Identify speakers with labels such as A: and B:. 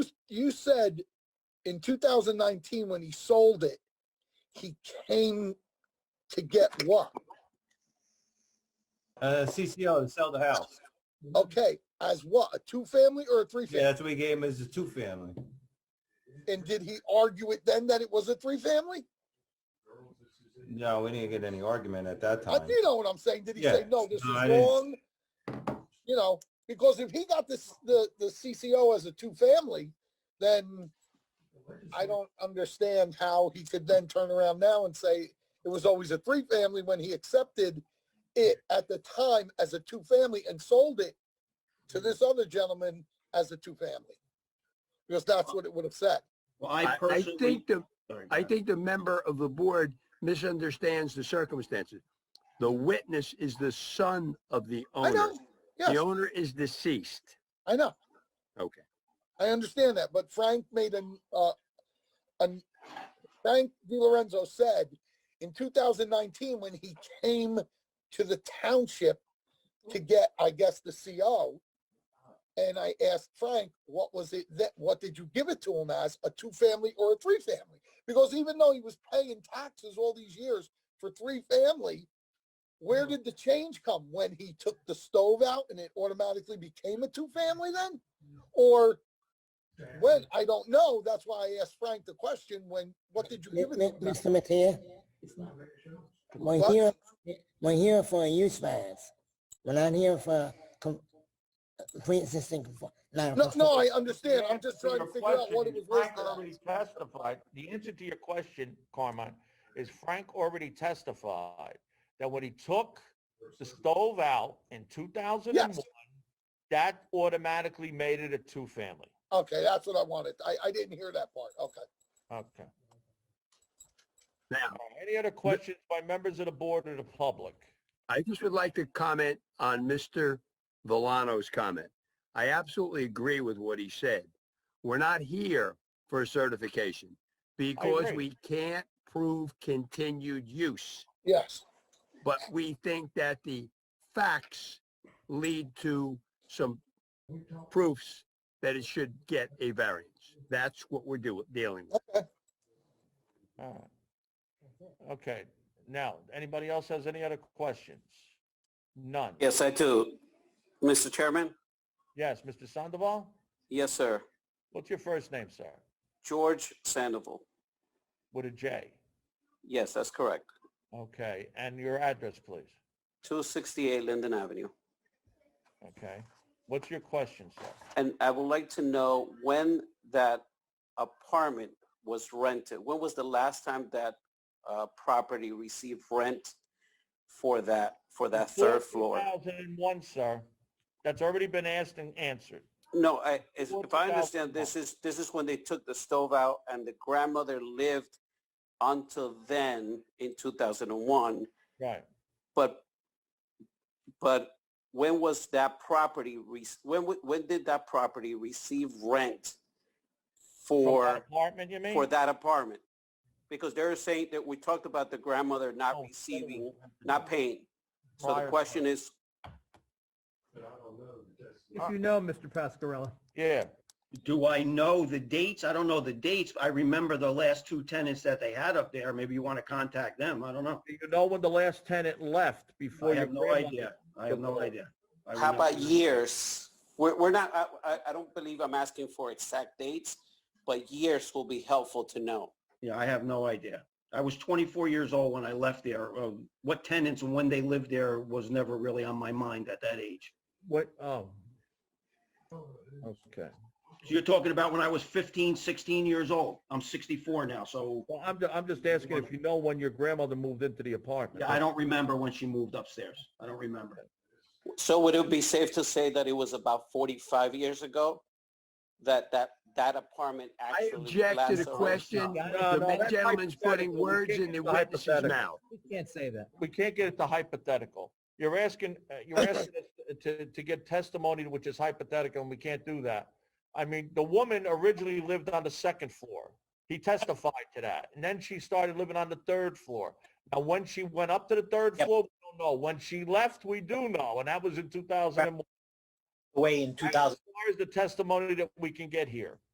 A: you said in 2019 when he sold it, he came to get what?
B: Uh, CCO to sell the house.
A: Okay, as what? A two family or a three
B: Mm-hmm. Yeah,
A: family?
B: that's what we gave him as a two family.
A: And did he argue it then that it was a three family?
B: No, we didn't get any argument at that
A: I,
B: time.
A: you know what I'm saying? Did he say
B: Yeah.
A: no? This
B: No,
A: is
B: I didn't-
A: wrong. You know, because if he got this the the CCO as a two family, then I don't understand how he could then turn around now and say it was always a three family when he accepted it at the time as a two family and sold it to
C: Mm-hmm.
A: this other gentleman as a two family. Because that's what it would have said.
D: Well, I
C: I, I
D: personally.
C: think the,
D: Sorry, go
C: I
D: ahead.
C: think the member of the board misunderstands the circumstances. The witness is the son of the
A: I
C: owner.
A: know. Yes,
C: The owner is deceased.
A: I know.
C: Okay.
A: I understand that, but Frank made an, uh, an, Frank DiLorenzo said in 2019, when he came to the township to get, I guess, the CO, and I asked Frank, what was it that, what did you give it to him as, a two-family or a three-family? Because even though he was paying taxes all these years for three-family, where did the change come? When he took the stove out and it automatically became a two-family then? Or when I don't know, that's why I asked Frank the question. When what did you
E: Mi-
A: give it?
E: mi-
A: to him?
E: Mr. Mattia? We're
A: What?
E: here, we're here for use fines. We're not here for com- pre-existing. confo-
A: No, no,
E: non-conforming.
A: I understand. I'm just
D: To
A: trying to
D: your
A: figure out what it
D: question,
A: was worth.
D: Frank
A: to them.
D: already testified. The answer to your question, Carmine, is Frank already testified that when he took the stove out in 2001,
A: Yes.
D: that automatically made it a two-family.
A: Okay, that's what I wanted. I, I didn't hear that part. Okay.
D: Okay.
C: Now,
D: Any other questions by members of the board or the public?
C: I just would like to comment on Mr. Villano's comment. I absolutely agree with what he said. We're not here for a certification because
D: agree.
C: we can't prove continued use.
A: Yes.
C: but we think that the facts lead to some proofs that it should get a variance. That's what we're do, dealing with.
D: All right. Okay. Now, anybody else has any other questions? None.
F: Yes, I do. Mr. Chairman?
D: Yes, Mr. Sandoval?
F: Yes, sir.
D: What's your first name, sir?
F: George Sandoval.
D: With a J.
F: Yes, that's correct.
D: Okay, and your address, please.
F: 268 Linden Avenue.
D: Okay. What's your question, sir?
F: And I would like to know when that apartment was rented. When was the last time that uh, property received rent for that, for that third floor?
D: 2001, sir. That's already been asked and answered.
F: No, I, is- if I understand,
D: 2001.
F: this is, this is when they took the stove out and the grandmother lived until then in 2001.
D: Right.
F: But, but when was that property, re- when, w- when did that property receive rent
D: From that
F: for,
D: Apartment, you mean?
F: for that apartment? Because they're saying that we talked about the grandmother not
D: Oh,
F: receiving, not paying. So the
D: Prior-
F: question is,
G: If you know, Mr. Pascarella.
D: Yeah,
G: Do I know the dates? I don't know the dates. I remember the last two tenants that they had up there. Maybe you want to contact them. I don't know.
D: Do you know when the last tenant left
G: I
D: before your
G: have no
D: grandmother-
G: idea. I have no idea. I
F: How about
G: remember.
F: years? We're, we're not, I, I, I don't believe I'm asking for exact dates, but years will be helpful to know.
G: Yeah, I have no idea. I was 24 years old when I left there. Uh, What tenants and when they lived there was never really on my mind at that age.
D: What, oh. Okay.
G: So you're talking about when I was 15, 16 years old. I'm 64 now, so
D: Well, I'm, ju- I'm just asking if you know when your grandmother moved into the apartment.
G: yeah, I don't remember when she moved upstairs. I don't remember.
F: So would it be safe to say that it was about 45 years ago that, that, that apartment
C: I
F: actually?
C: object to
F: lasts
C: the
F: around-
C: question.
D: No, no,
C: The
D: that's
C: gentleman's putting
D: hypothetical. We
C: words
D: can't
C: in the
D: get the
C: witness's
D: hypothetical.
C: mouth.
G: You can't say that.
D: we can't get it to hypothetical. You're asking, uh, you're asking us to, to get testimony which is hypothetical, and we can't do that. I mean, the woman originally lived on the second floor. He testified to that, and then she started living on the third floor. Now, when she went up to the third
E: Yep.
D: floor, we don't know. When she left, we do know, and that was in 2001.
E: Way in two
D: As
E: thousand.
D: far as the testimony that we can get here,